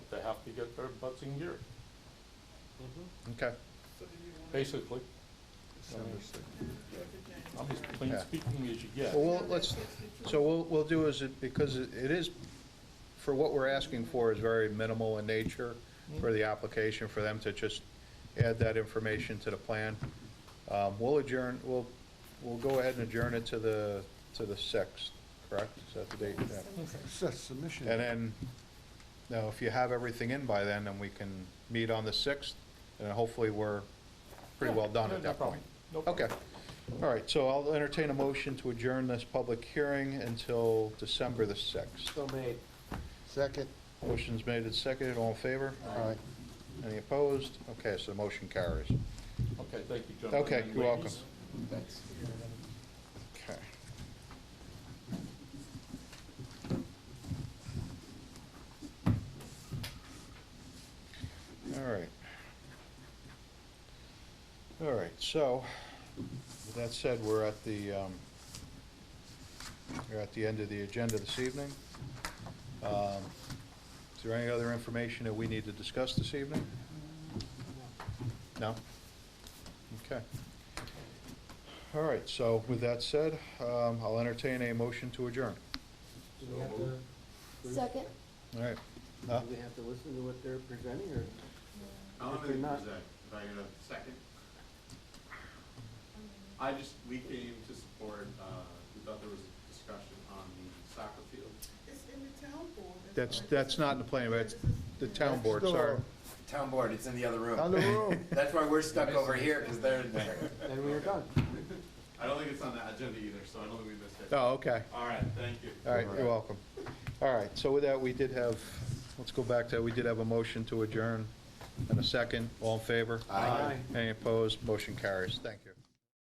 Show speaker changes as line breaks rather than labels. have to get their butts in gear,
Okay.
basically. I mean, I'm as plain
Yeah.
speaking as you get.
Well, we'll- let's, so what we'll do is, it- because it it is, for what we're asking for is very minimal in nature
Mm-hmm.
for the application, for them to just add that information to the plan. Um, We'll adjourn, we'll, we'll go ahead and adjourn it to the, to the 6th, correct? Is that the date? Yeah.
submission.
And then, now, if you have everything in by then, then we can meet on the 6th, and then hopefully we're pretty well done
Yeah,
at
no
that
problem.
point.
No problem.
Okay. All right, so I'll entertain a motion to adjourn this public hearing until December the 6th.
So made. Second.
Motion's made and seconded, all in favor?
Aye.
Any opposed? Okay, so the motion carries.
Okay, thank you, gentlemen.
Okay,
and
you're welcome.
ladies.
Okay. All right. All right, so, with that said, we're at the, um, we're at the end of the agenda this evening. Um, Is there any other information that we need to discuss this evening? No? Okay. All right, so with that said, um, I'll entertain a motion to adjourn.
Do we have to,
Second.
All right. Huh?
do we have to listen to what they're presenting, or?
I'll
If
make
they're
it
not-
present, if I get a second. I just, we came to support, uh, we thought there was a discussion on the soccer field.
It's in the town board.
That's, that's not in the plan, but it's the town board, sorry.
Town board, it's in the other
On the
room.
room,
That's why we're stuck over here, because they're in there.
and we are done.
I don't think it's on the agenda either, so I don't think we missed it.
Oh, okay.
All right, thank you.
All right, you're welcome. All right, so with that, we did have, let's go back to, that. we did have a motion to adjourn and a second. All in favor?
Aye.
Any opposed? Motion carries. Thank you.